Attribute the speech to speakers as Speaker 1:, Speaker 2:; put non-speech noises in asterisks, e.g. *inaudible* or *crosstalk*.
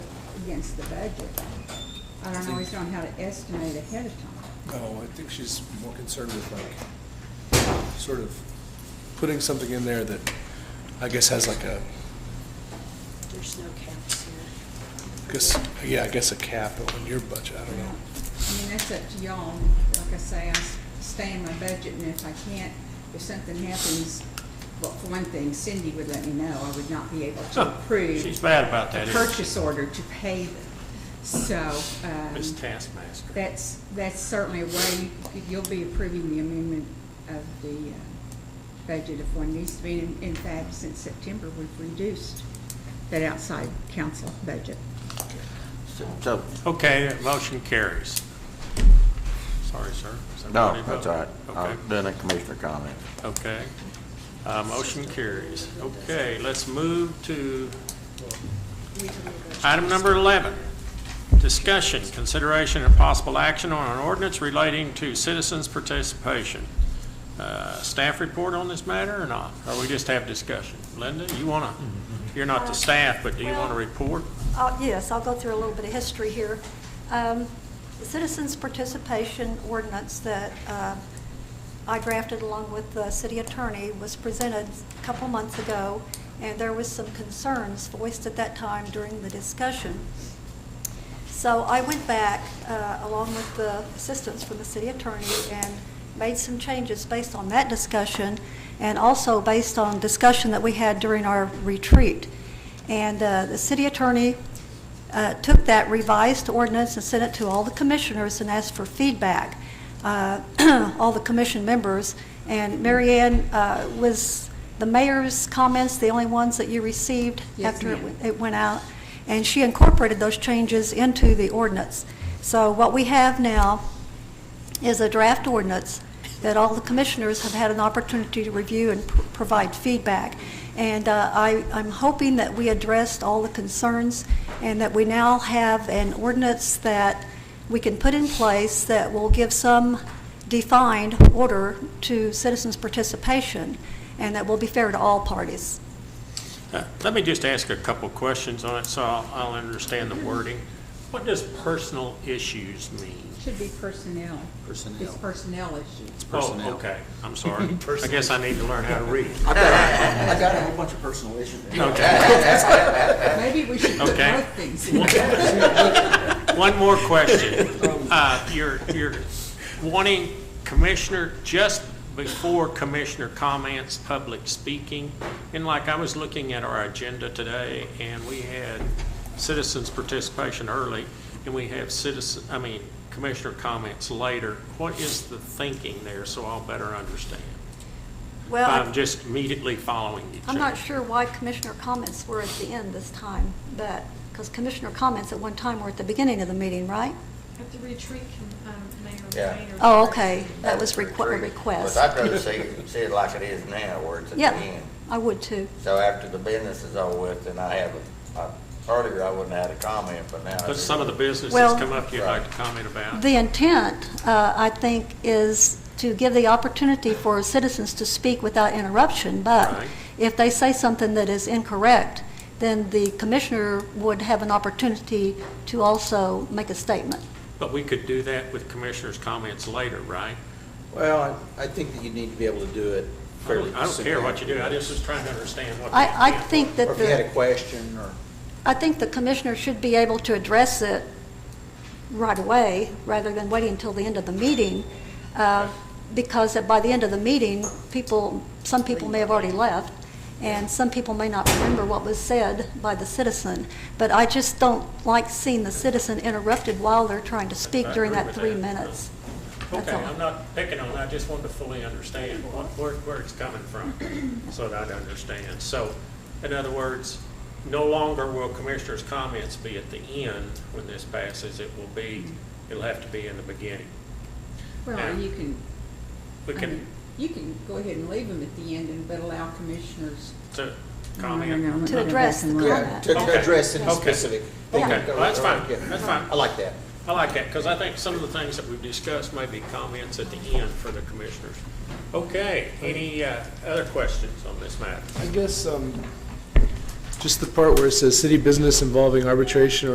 Speaker 1: against the budget. I don't always know how to estimate ahead of time.
Speaker 2: No, I think she's more concerned with like, sort of putting something in there that I guess has like a,
Speaker 3: There's no caps here.
Speaker 2: I guess, yeah, I guess a cap on your budget, I
Speaker 1: I
Speaker 2: don't know.
Speaker 1: mean, that's up to y'all. Like I say, I s- stay in my budget, and if I can't, if something happens, well, for one thing, Cindy would let me know. I would not be able to approve.
Speaker 4: She's bad about that,
Speaker 1: A
Speaker 4: isn't she?
Speaker 1: purchase order to pay them. So, um,
Speaker 4: Miss Taskmaster.
Speaker 1: that's, that's certainly a way, you- you'll be approving the amendment of the uh, budget if one needs to be. In in fact, since September, we've reduced that outside council budget.
Speaker 5: So,
Speaker 4: Okay, motion carries. Sorry, sir. Is
Speaker 5: no,
Speaker 4: everybody
Speaker 5: that's all right. Um,
Speaker 4: voting?
Speaker 5: I'm doing a commissioner comment.
Speaker 4: Okay, okay. Uh, Motion carries. Okay, let's move to
Speaker 3: We can negotiate.
Speaker 4: item number 11. Discussion, consideration, and possible action on an ordinance relating to citizens' participation. Uh, Staff report on this matter or not? Or we just have discussion? Linda, you want to, you're not the staff, but do you want to
Speaker 6: Well-
Speaker 4: report?
Speaker 6: Uh, Yes, I'll go through a little bit of history here. Um, the Citizens Participation Ordinance that uh, I drafted along with the city attorney was presented a couple months ago, and there was some concerns voiced at that time during the discussion. So I went back, uh, along with the assistance from the city attorney, and made some changes based on that discussion, and also based on discussion that we had during our retreat. And uh, the city attorney uh, took that revised ordinance and sent it to all the commissioners and asked for feedback, uh, *clears throat* all the commission members. And Mary Ann, uh, was the mayor's comments the only ones that you received
Speaker 1: Yes,
Speaker 6: after it
Speaker 1: ma'am.
Speaker 6: went it went out, and she incorporated those changes into the ordinance. So what we have now is a draft ordinance that all the commissioners have had an opportunity to review and pr- provide feedback. And uh, I, I'm hoping that we addressed all the concerns and that we now have an ordinance that we can put in place that will give some defined order to citizens' participation and that will be fair to all parties.
Speaker 4: Uh, Let me just ask a couple questions on it, so I'll I'll understand the wording. What does personal issues mean?
Speaker 1: Should be personnel.
Speaker 7: Personnel.
Speaker 1: It's personnel
Speaker 4: *laughs*
Speaker 1: issue.
Speaker 4: Oh, okay, I'm sorry. I guess I need to learn how to read.
Speaker 7: I've got, I've got a whole bunch of personal issues.
Speaker 4: Okay.
Speaker 1: Maybe we should put
Speaker 4: Okay.
Speaker 1: both
Speaker 4: *laughs*
Speaker 1: things in.
Speaker 4: One more question. Uh, You're you're wanting Commissioner, just before Commissioner comments, public speaking, and like, I was looking at our agenda today, and we had citizens' participation early, and we have citizen, I mean, Commissioner comments later. What is the thinking there, so I'll better understand?
Speaker 6: Well, I-
Speaker 4: I'm just immediately following each other.
Speaker 6: I'm not sure why commissioner comments were at the end this time, but, because commissioner comments at one time were at the beginning of the meeting, right?
Speaker 8: At the retreat, um, Mayor
Speaker 5: Yeah.
Speaker 8: Rayner.
Speaker 6: Oh, okay, *laughs* that was requ- a
Speaker 5: Retreat.
Speaker 6: request.
Speaker 5: But I'd rather see, see it like it is now, where it's at the
Speaker 6: Yeah,
Speaker 5: end.
Speaker 6: I would too.
Speaker 5: So after the business is over with, then I have, a- I- earlier I wouldn't have had a comment, but now. I do.
Speaker 4: But some of the businesses
Speaker 6: Well-
Speaker 4: come up you'd like to comment about.
Speaker 6: The intent, uh, I think, is to give the opportunity for citizens to speak without interruption, but
Speaker 4: Right.
Speaker 6: if they say something that is incorrect, then the commissioner would have an opportunity to also make a statement.
Speaker 4: But we could do that with commissioners' comments later, right?
Speaker 7: Well, I I think that you need to be able to do it
Speaker 4: I
Speaker 7: fairly.
Speaker 4: don't- I don't care what you
Speaker 7: simply.
Speaker 4: do, I just was trying to understand what.
Speaker 6: I, I
Speaker 4: the intent
Speaker 6: think that
Speaker 7: Or
Speaker 6: the...
Speaker 7: if you had a question, or,
Speaker 6: I think the commissioner should be able to address it right away, rather than waiting until the end of the meeting, uh, because by the end of the meeting, people, some people may have already left, and some people may not remember what was said by the citizen. But I just don't like seeing the citizen interrupted while they're trying to speak
Speaker 4: I
Speaker 6: during
Speaker 4: agree
Speaker 6: that
Speaker 4: with
Speaker 6: three
Speaker 4: that. was.
Speaker 6: minutes. That's
Speaker 4: Okay,
Speaker 6: all.
Speaker 4: I'm not picking on, it, I just wanted to fully understand what- where, where it's coming from,
Speaker 6: *coughs*
Speaker 4: so that I'd understand. So, in other words, no longer will commissioners' comments be at the end when this passes, it will be, it'll have to be in the beginning.
Speaker 1: Well, you can,
Speaker 4: We
Speaker 1: I mean,
Speaker 4: can,
Speaker 1: you can go ahead and leave them at the end, and but allow commissioners.
Speaker 4: to
Speaker 1: No, no, no,
Speaker 4: comment.
Speaker 1: let me
Speaker 6: To
Speaker 1: go back
Speaker 6: address
Speaker 1: and
Speaker 6: the
Speaker 1: look.
Speaker 7: yeah, to-
Speaker 4: Okay.
Speaker 7: to address any
Speaker 4: Okay.
Speaker 7: specific. thing.
Speaker 4: Okay, well, that's fine,
Speaker 7: Yeah.
Speaker 4: that's fine.
Speaker 7: I like that.
Speaker 4: I like that, because I think some of the things that we've discussed may be comments at the end for the commissioners. Okay, any uh, other questions on this matter?
Speaker 2: I guess, um, just the part where it says city business involving arbitration or